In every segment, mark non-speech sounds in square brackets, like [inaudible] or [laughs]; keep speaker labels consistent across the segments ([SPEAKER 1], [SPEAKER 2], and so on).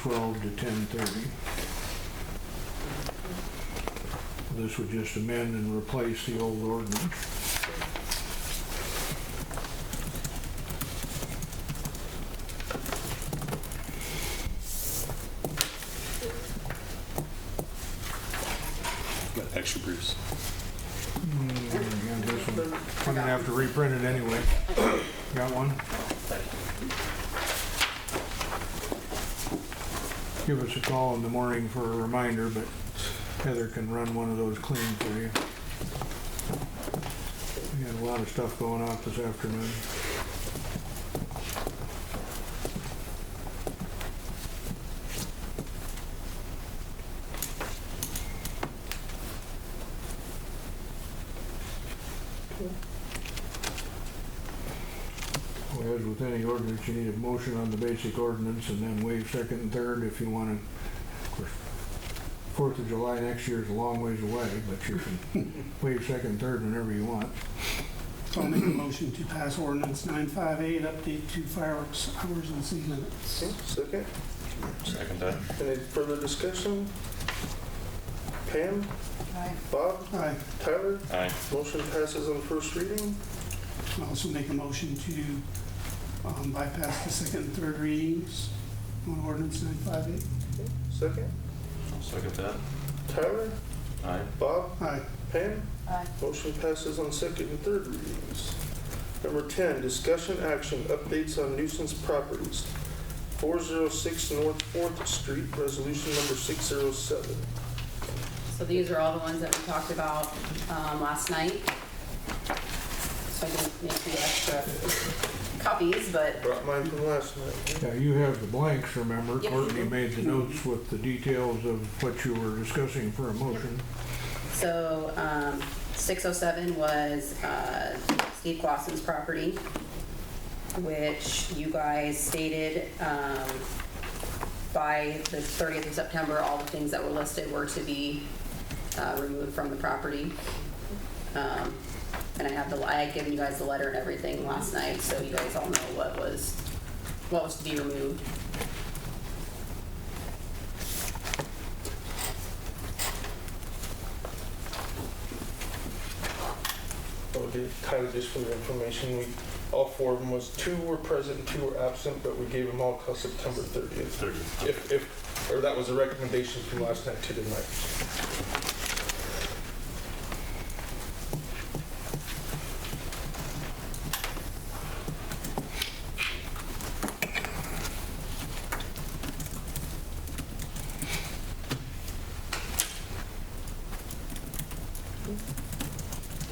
[SPEAKER 1] twelve to ten thirty. This would just amend and replace the old ordinance.
[SPEAKER 2] Got extra Bruce.
[SPEAKER 1] And this one, I'm gonna have to reprint it anyway. Got one? Give us a call in the morning for a reminder, but Heather can run one of those clean for you. We got a lot of stuff going off this afternoon. Well, As with any ordinance, you need a motion on the basic ordinance and then waive second and third if you want to. Of course, Fourth of July next year is a long ways away, but you can
[SPEAKER 3] [laughs]
[SPEAKER 1] waive second and third whenever you want.
[SPEAKER 4] So I'll make a motion to pass ordinance 958, update to fireworks hours and city limits.
[SPEAKER 3] Second,
[SPEAKER 2] Second that.
[SPEAKER 3] any further discussion? Pam?
[SPEAKER 5] Aye.
[SPEAKER 3] Bob?
[SPEAKER 4] Aye.
[SPEAKER 3] Tyler?
[SPEAKER 2] Aye.
[SPEAKER 3] Motion passes on first reading.
[SPEAKER 4] I'll also make a motion to um, bypass the second and third readings on ordinance 958.
[SPEAKER 3] Second,
[SPEAKER 2] Second that.
[SPEAKER 3] Tyler?
[SPEAKER 2] Aye.
[SPEAKER 3] Bob?
[SPEAKER 4] Aye.
[SPEAKER 3] Pam?
[SPEAKER 5] Aye.
[SPEAKER 3] Motion passes on second and third readings. Number 10, discussion action, updates on nuisance properties. 406 North Fourth Street, resolution number 607.
[SPEAKER 5] So these are all the ones that we talked about um, last night. So I didn't make you extra copies, but
[SPEAKER 3] Brought mine from last night.
[SPEAKER 1] Now, you have the blanks, remember?
[SPEAKER 5] Yep.
[SPEAKER 1] Courtney made the notes with the details of what you were discussing for a motion.
[SPEAKER 5] So, um, six oh seven was, uh, Steve Clausen's property, which you guys stated, um, by the thirtieth of September, all the things that were listed were to be, uh, removed from the property. Um, and I have the, I had given you guys the letter and everything last night, so you guys all know what was, what was to be removed.
[SPEAKER 3] Oh, did- Tyler, just for your information, we, all four of them was, two were present, two were absent, but we gave them all till September 30th.
[SPEAKER 2] Third.
[SPEAKER 3] If, if, or that was a recommendation from last night to tonight.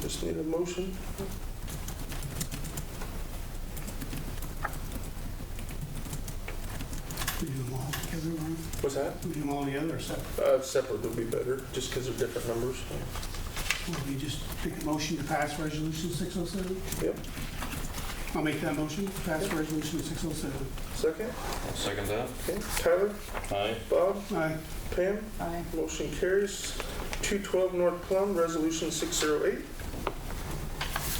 [SPEAKER 3] Just need a motion.
[SPEAKER 4] We do them all together, Lauren?
[SPEAKER 3] What's that?
[SPEAKER 4] We do them all together, so
[SPEAKER 3] Uh, separate would be better, just because they're different numbers.
[SPEAKER 4] will we just make a motion to pass resolution 607?
[SPEAKER 3] Yep.
[SPEAKER 4] I'll make that motion, to pass resolution 607.
[SPEAKER 3] Second,
[SPEAKER 2] Second that.
[SPEAKER 3] okay, Tyler,
[SPEAKER 2] Aye.
[SPEAKER 3] Bob,
[SPEAKER 4] Aye.
[SPEAKER 3] Pam,
[SPEAKER 5] Aye.
[SPEAKER 3] motion carries. 212 North Plum, resolution 608.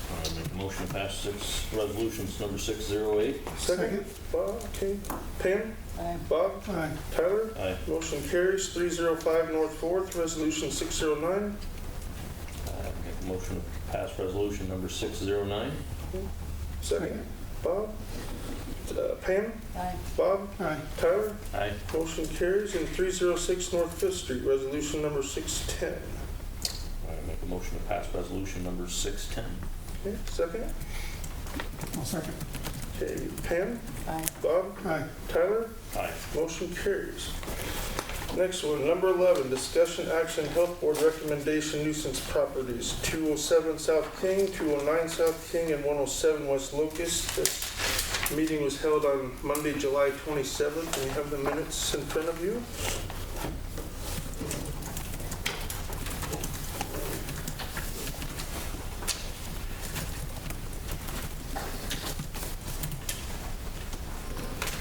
[SPEAKER 2] I make a motion to pass six, resolutions number six zero eight.
[SPEAKER 3] Second, Bob, okay, Pam, Bob,
[SPEAKER 4] Aye.
[SPEAKER 3] Tyler,
[SPEAKER 2] Aye.
[SPEAKER 3] motion carries. 305 North Fourth, resolution 609.
[SPEAKER 2] I make a motion to pass resolution number six zero nine.
[SPEAKER 3] Second, Bob, uh, Pam,
[SPEAKER 5] Aye.
[SPEAKER 3] Bob,
[SPEAKER 4] Aye.
[SPEAKER 3] Tyler,
[SPEAKER 2] Aye.
[SPEAKER 3] motion carries. And 306 North Fifth Street, resolution number 610.
[SPEAKER 2] I make a motion to pass resolution number six ten.
[SPEAKER 3] Okay, second,
[SPEAKER 4] I'll second.
[SPEAKER 3] okay, Pam,
[SPEAKER 5] Aye.
[SPEAKER 3] Bob,
[SPEAKER 4] Aye.
[SPEAKER 3] Tyler,
[SPEAKER 2] Aye.
[SPEAKER 3] Motion carries. Next one, number 11, discussion action, health board recommendation nuisance properties, 207 South King, 209 South King, and 107 West Locust. This meeting was held on Monday, July 27th, and you have the minutes in front of you.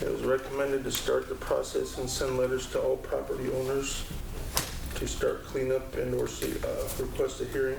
[SPEAKER 3] It was recommended to start the process and send letters to all property owners uh, to start cleanup and/or request a hearing.